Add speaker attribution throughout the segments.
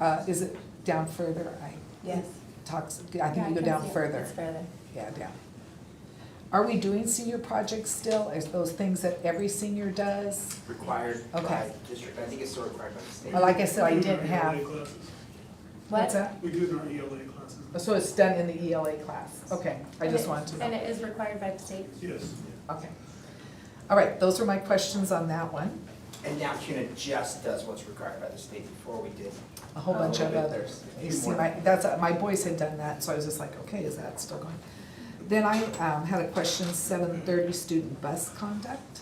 Speaker 1: Uh, is it down further? I
Speaker 2: Yes.
Speaker 1: talks, I think you go down further. Yeah, down. Are we doing senior projects still? Is those things that every senior does?
Speaker 3: required by
Speaker 1: Okay.
Speaker 3: district, I think it's still required by the state.
Speaker 1: Well, like I said, I
Speaker 4: We do
Speaker 1: didn't
Speaker 4: in our
Speaker 1: have.
Speaker 4: ELA classes.
Speaker 1: What's
Speaker 2: What?
Speaker 1: that?
Speaker 4: We do in our ELA classes,
Speaker 1: So it's done in the ELA class? Okay, I just wanted to know.
Speaker 2: And it is required by the state?
Speaker 4: yes.
Speaker 1: Okay. All right, those are my questions on that one.
Speaker 3: And now CUNA just does what's required by the state before we did.
Speaker 1: A whole bunch of
Speaker 3: Oh.
Speaker 1: others. You see, my, that's, uh, my boys had done that, so I was just like, okay, is that still going? Then I um, had a question, seven thirty student bus conduct.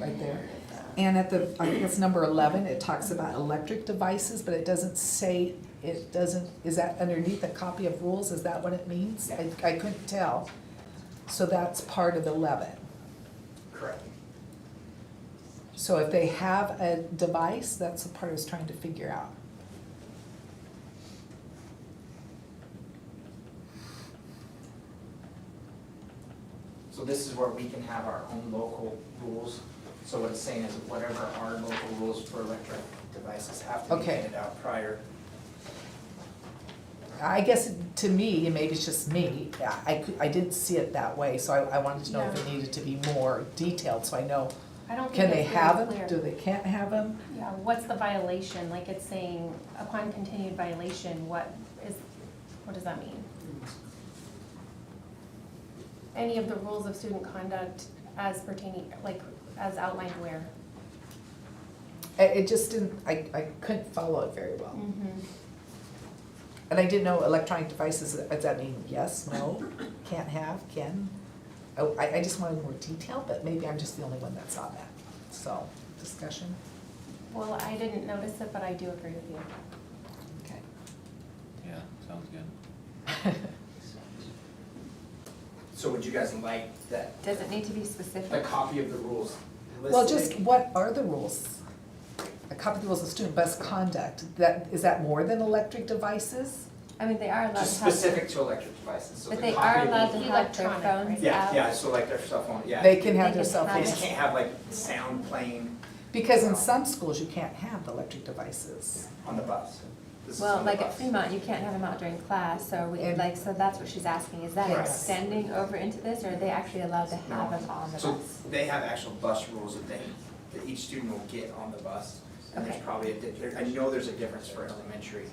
Speaker 1: Right there. And at the, I think it's number eleven, it talks about electric devices, but it doesn't say, it doesn't, is that underneath a copy of rules? Is that what it means? I, I couldn't tell. So that's part of eleven.
Speaker 3: Correct.
Speaker 1: So if they have a device, that's the part I was trying to figure out.
Speaker 3: So this is where we can have our own local rules. So what it's saying is whatever our local rules for electric devices have to be
Speaker 1: Okay.
Speaker 3: handed out prior.
Speaker 1: I guess to me, and maybe it's just me, I, cou- I didn't see it that way, so I, I wanted to know if it needed to be more detailed, so I know,
Speaker 5: I don't
Speaker 1: can
Speaker 5: think
Speaker 1: they
Speaker 5: it's
Speaker 1: have
Speaker 5: very
Speaker 1: them, do
Speaker 5: clear.
Speaker 1: they can't have them?
Speaker 5: Yeah, what's the violation? Like it's saying upon continued violation, what is, what does that mean? Any of the rules of student conduct as pertaining, like as outlined where?
Speaker 1: I- It, just didn't, I, I couldn't follow it very well.
Speaker 5: Mm.
Speaker 6: Mm-hmm.
Speaker 1: And I didn't know electronic devices, uh, does that mean yes, no, can't have, can? Oh, I, I just wanted more detail, but maybe I'm just the only one that saw that, so, discussion,
Speaker 5: Well, I didn't notice it, but I do agree with you.
Speaker 1: okay.
Speaker 7: Yeah, sounds good.
Speaker 3: So would you guys like that,
Speaker 6: Does it need to be
Speaker 3: the
Speaker 6: specific?
Speaker 3: copy of the rules listed?
Speaker 1: Well, just what are the rules? A copy of the rules of student bus conduct, that, is that more than electric devices?
Speaker 6: I mean, they are allowed
Speaker 3: Just
Speaker 6: to have, their-
Speaker 3: specific to electric devices, so the
Speaker 6: but
Speaker 3: copy
Speaker 6: they
Speaker 3: of.
Speaker 6: are
Speaker 3: the-
Speaker 6: allowed to have their
Speaker 5: Electronic,
Speaker 6: phones out.
Speaker 5: right?
Speaker 3: Yeah, yeah, so like their cell phone, yeah.
Speaker 1: They can have
Speaker 6: They
Speaker 1: their
Speaker 6: can
Speaker 1: cell
Speaker 6: have
Speaker 3: They
Speaker 1: phones.
Speaker 3: just can't have like sound playing
Speaker 1: Because in some schools, you can't have the electric devices.
Speaker 3: on the bus. This is on
Speaker 6: Well,
Speaker 3: the
Speaker 6: like at
Speaker 3: bus.
Speaker 6: Fremont, you can't have them out during class, so we,
Speaker 1: And-
Speaker 6: like, so that's what she's asking, is that
Speaker 1: Right.
Speaker 6: extending over into this, or are they actually allowed to have
Speaker 3: No.
Speaker 6: them on the
Speaker 3: So
Speaker 6: bus?
Speaker 3: they have actual bus rules that they, that each student will get on the bus. And there's
Speaker 6: Okay.
Speaker 3: probably, a di- there- I know there's a difference for elementary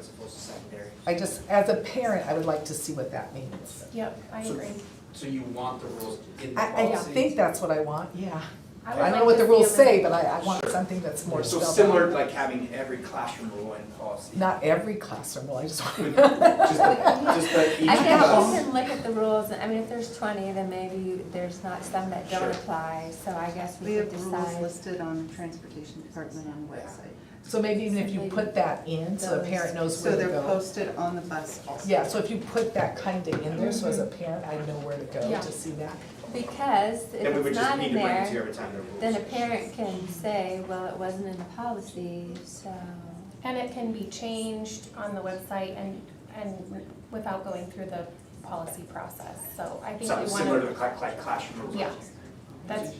Speaker 3: as opposed to secondary.
Speaker 1: I just, as a parent, I would like to see what that means.
Speaker 5: Yep, I
Speaker 3: So-
Speaker 5: agree.
Speaker 3: So you want the rules in the
Speaker 1: I, I
Speaker 3: policy?
Speaker 1: think that's what I want, yeah.
Speaker 5: would
Speaker 1: I don't know
Speaker 5: like
Speaker 1: what
Speaker 5: to
Speaker 1: the rules
Speaker 5: see 'em in-
Speaker 1: say, but I, I want
Speaker 3: Sure.
Speaker 1: something that's more
Speaker 3: So
Speaker 1: spelled out.
Speaker 3: similar to like having every classroom rule in policy.
Speaker 1: Not every classroom, well, I just want.
Speaker 3: Just the, just the each
Speaker 6: I guess you
Speaker 3: bus.
Speaker 6: can look at the rules, I mean, if there's twenty, then maybe there's not some that
Speaker 3: Sure.
Speaker 6: don't apply, so I guess
Speaker 8: We
Speaker 6: we could
Speaker 8: have rules
Speaker 6: decide.
Speaker 8: listed on the transportation department on the website.
Speaker 1: So maybe even if you put that in, so a parent knows where
Speaker 8: So
Speaker 1: to go.
Speaker 8: they're posted on the bus also.
Speaker 1: Yeah, so if you put that kind of in there, so as a parent, I know where to go
Speaker 5: Yeah.
Speaker 1: to see that.
Speaker 6: Because
Speaker 3: Then we
Speaker 6: if
Speaker 3: would
Speaker 6: it's
Speaker 3: just
Speaker 6: not
Speaker 3: need
Speaker 6: in
Speaker 3: to bring it to you
Speaker 6: there,
Speaker 3: every time the rules.
Speaker 6: then a parent can say, well, it wasn't in the policy, so.
Speaker 5: And it can be changed on the website and, and without going through the policy process. So I think we want
Speaker 3: Something
Speaker 5: to.
Speaker 3: similar to the cla- cla- classroom rules.
Speaker 5: Yeah, that's,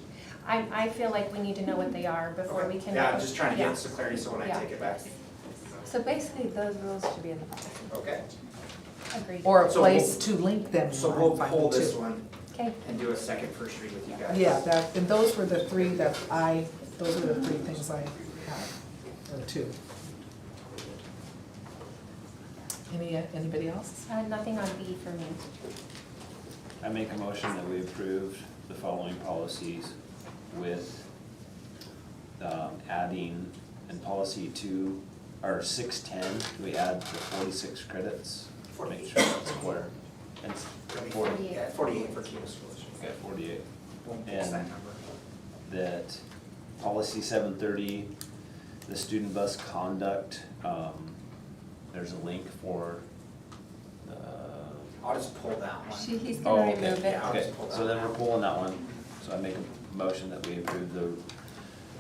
Speaker 5: I, I feel like we need to know what they are before we can.
Speaker 3: Yeah, I'm just trying to
Speaker 5: Yeah.
Speaker 3: get some clarity, so when I
Speaker 5: Yeah.
Speaker 3: take it back,
Speaker 6: So basically, those rules should be in the policy.
Speaker 3: okay?
Speaker 5: Agreed.
Speaker 1: Or a
Speaker 3: So
Speaker 1: place to link them.
Speaker 3: So
Speaker 1: on,
Speaker 3: we'll
Speaker 1: find
Speaker 3: pull
Speaker 1: the
Speaker 3: this
Speaker 1: two.
Speaker 3: one
Speaker 6: Okay,
Speaker 3: and do a second first read with you guys.
Speaker 1: Yeah, that, and those were the three that I, those were the three things I had, or two. Any, anybody else?
Speaker 5: Uh, nothing on B for me.
Speaker 7: I make a motion that we approve the following policies with um, adding in policy two, or six ten, we add the forty-six credits. Make sure that's square. And s-
Speaker 3: It'll be
Speaker 7: forty,
Speaker 3: Yeah, forty-eight for Kima Schools.
Speaker 7: we got forty-eight.
Speaker 3: We'll fix that number.
Speaker 7: That policy seven thirty, the student bus conduct, um, there's a link for uh, the
Speaker 3: I'll just pull that one.
Speaker 6: she, he's
Speaker 7: Oh,
Speaker 6: gonna
Speaker 7: okay.
Speaker 6: remove it.
Speaker 3: Yeah. I'll
Speaker 7: Okay,
Speaker 3: just pull that
Speaker 7: so then
Speaker 3: one.
Speaker 7: we're pulling that one. So I make a motion that we approve the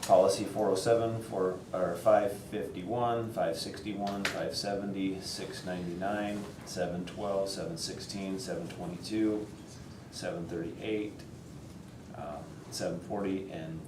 Speaker 7: policy four oh seven, four, or five fifty-one, five sixty-one, five seventy, six ninety-nine, seven twelve, seven sixteen, seven twenty-two, seven thirty-eight, um, seven forty, and